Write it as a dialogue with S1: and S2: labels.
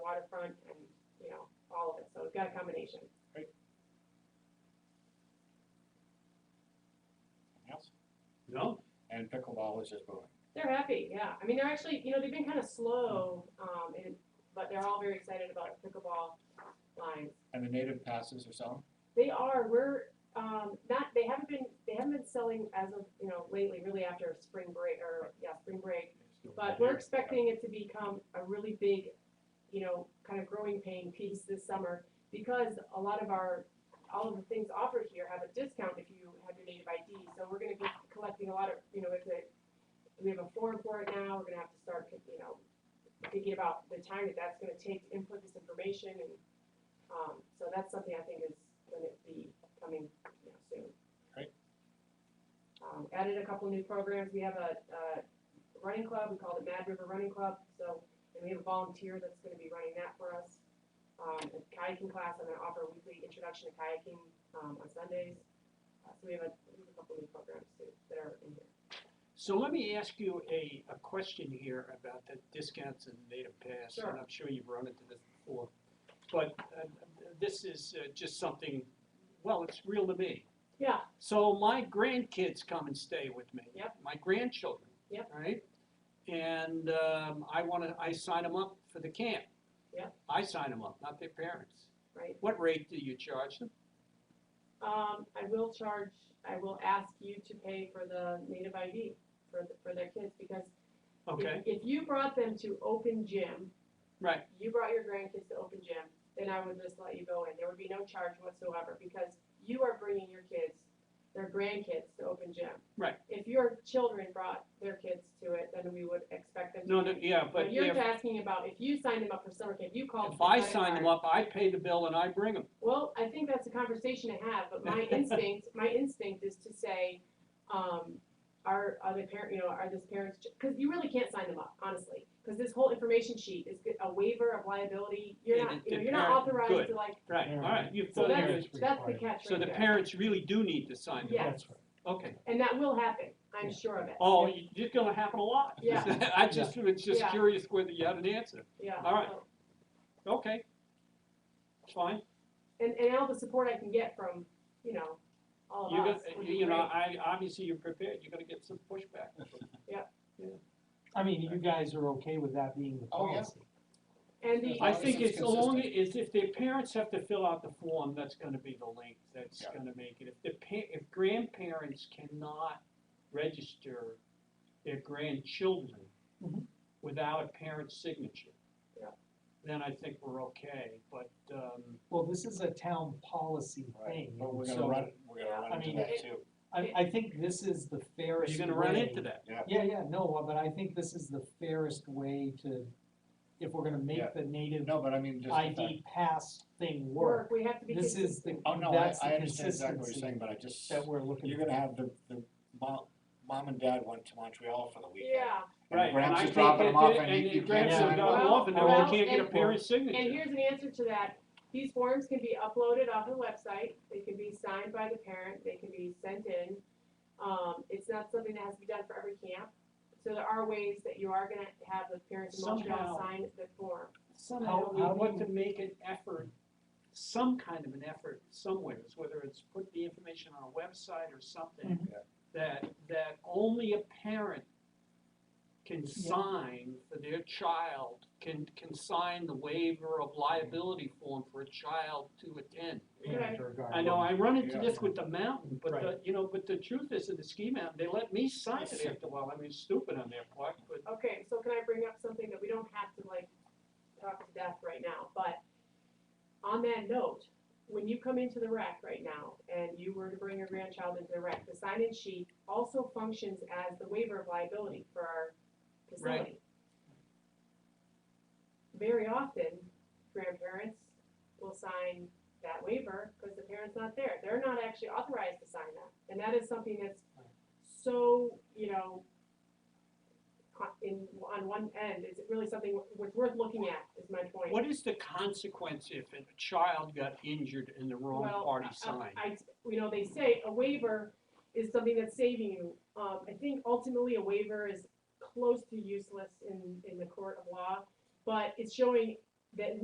S1: up front and, you know, all of it, so we've got a combination.
S2: Anything else?
S3: No,
S2: And pickleball is just booming.
S1: They're happy, yeah. I mean, they're actually, you know, they've been kind of slow, um, and, but they're all very excited about pickleball lines.
S2: And the native passes are selling?
S1: They are, we're, um, not, they haven't been, they haven't been selling as of, you know, lately, really after spring break, or, yeah, spring break. But we're expecting it to become a really big, you know, kind of growing pain piece this summer because a lot of our, all of the things offered here have a discount if you have your native ID. So we're gonna be collecting a lot of, you know, if it, we have a form for it now, we're gonna have to start, you know, thinking about the time that that's gonna take to input this information and, um, so that's something I think is gonna be coming, you know, soon.
S2: Great.
S1: Um, added a couple new programs, we have a, uh, running club, we call it Mad River Running Club, so, and we have a volunteer that's gonna be running that for us. Um, a kayaking class, I'm gonna offer a weekly introduction to kayaking, um, on Sundays. Uh, so we have a, we have a couple new programs too that are in here.
S3: So let me ask you a, a question here about the discounts and native pass.
S1: Sure.
S3: And I'm sure you've run into this before. But uh, this is uh, just something, well, it's real to me.
S1: Yeah,
S3: So my grandkids come and stay with me.
S1: Yep.
S3: My grandchildren.
S1: Yep.
S3: Right? And um, I want to, I sign them up for the camp.
S1: Yep.
S3: I sign them up, not their parents.
S1: right.
S3: What rate do you charge them?
S1: Um, I will charge, I will ask you to pay for the native ID for, the- for their kids because if-
S3: Okay,
S1: if you brought them to open gym,
S3: right.
S1: you brought your grandkids to open gym, then I would just let you go in. There would be no charge whatsoever because you are bringing your kids, their grandkids to open gym.
S3: Right.
S1: If your children brought their kids to it, then we would expect them to.
S3: No,
S1: be-
S3: no, yeah,
S1: But
S3: but
S1: you're
S3: if,
S1: asking about if you signed them up for summer camp, you called.
S3: if I sign them up, I pay the bill and I bring them.
S1: Well, I think that's a conversation to have, but my instinct, my instinct is to say, um, are, are the parent, you know, are this parents, because you really can't sign them up, honestly. Because this whole information sheet is g- a waiver of liability, you're
S3: Yeah,
S1: not,
S3: the-
S1: you know,
S3: the
S1: you're not
S3: parent-
S1: authorized
S3: good.
S1: to like,
S3: Right, all right, you've
S1: so
S3: thought
S1: that's,
S3: of
S4: parents
S3: it.
S1: that's the
S4: required.
S1: catch
S3: So
S1: right
S3: the
S1: there.
S3: parents really do need to sign them.
S1: Yeah.
S4: That's right.
S3: Okay.
S1: And that will happen, I'm sure of it.
S3: Oh, you- it's gonna happen a lot.
S1: Yeah.
S3: I just, was just
S1: Yeah.
S3: curious whether you had an answer.
S1: Yeah.
S3: all right.
S1: so-
S3: Okay. Fine.
S1: And, and all the support I can get from, you know, all
S3: You're
S1: of us.
S3: gonna,
S1: would be
S3: you know,
S1: great.
S3: I, obviously you're prepared, you're gonna get some pushback.
S4: I mean, you guys are okay with that being the
S2: Oh, yeah.
S4: policy?
S1: And the.
S3: I think
S2: it's
S3: it's only, is if their parents have to fill out the form, that's gonna be the link, that's
S2: Yeah.
S3: gonna make it. If the pa, if grandparents cannot register their grandchildren
S2: Mm-hmm.
S4: Mhm.
S3: without a parent's signature.
S1: Yeah.
S3: Then I think we're okay, but, um,
S4: Well, this is a town policy
S2: Right,
S4: thing,
S2: but we're gonna
S4: so
S2: run, we're
S1: Yeah.
S2: gonna
S4: I
S2: run into
S4: mean,
S2: that
S1: it-
S2: too.
S4: I, I think this is the fairest
S3: you're gonna run
S4: way.
S3: into that.
S4: Yeah, yeah, no, but I think this is the fairest way to, if we're gonna
S2: Yeah.
S4: make the native
S2: No, but I mean, just. the fact-
S4: ID pass thing
S1: Work,
S4: work,
S1: we have to be.
S4: this is
S1: consistent.
S4: the,
S2: Oh, no, I,
S4: that's
S2: I
S4: the
S2: understand exactly what you're
S4: consistency
S2: saying, but I just,
S4: that we're looking
S2: you're
S4: for.
S2: gonna have the, the mom, mom and dad went to Montreal for the weekend.
S1: Yeah.
S2: And
S3: Right, and
S2: Gramps
S3: I
S2: is
S3: think
S2: dropping
S3: that,
S2: them off
S3: that-
S2: and you-
S3: and
S2: you
S3: the
S2: can't
S3: grants have
S2: sign
S3: gone
S1: Well,
S3: off, and now
S1: well,
S3: we can't get a
S1: and-
S3: parent's
S1: And
S3: signature.
S1: here's an answer to that. These forms can be uploaded off the website, they can be signed by the parent, they can be sent in. Um, it's not something that has to be done for every camp. So there are ways that you are gonna have the parents in Montreal
S3: Somehow.
S1: sign the form.
S3: Somehow, we
S4: how do
S3: want
S4: you-
S3: to make an effort, some kind of an effort somewhere, it's whether it's put the information on a website or something,
S4: Mhm.
S2: Yeah.
S3: that, that only a parent can sign for their child, can, can sign the waiver of liability form for a child to attend.
S1: Okay.
S3: I know, I run into
S2: Yeah.
S3: this with the mountain, but the,
S4: Right.
S3: you know, but the truth is, in the ski mountain, they let me sign it after a while, I mean, it's stupid on their part, but
S1: Okay, so can I bring up something that we don't have to like talk to death right now, but on that note, when you come into the rec right now and you were to bring your grandchild into the rec, the sign-in sheet also functions as the waiver of liability for our facility. Very often, grandparents will sign that waiver because the parent's not there. They're not actually authorized to sign that. And that is something that's so, you know, co- in, on one end, is it really something wor- worth, worth looking at, is my point.
S3: What is the consequence if a child got injured and the wrong
S1: Well,
S3: party
S1: I-
S3: signed?
S1: Uh, I, you know, they say a waiver is something that's saving you. Um, I think ultimately a waiver is close to useless in, in the court of law, but it's showing that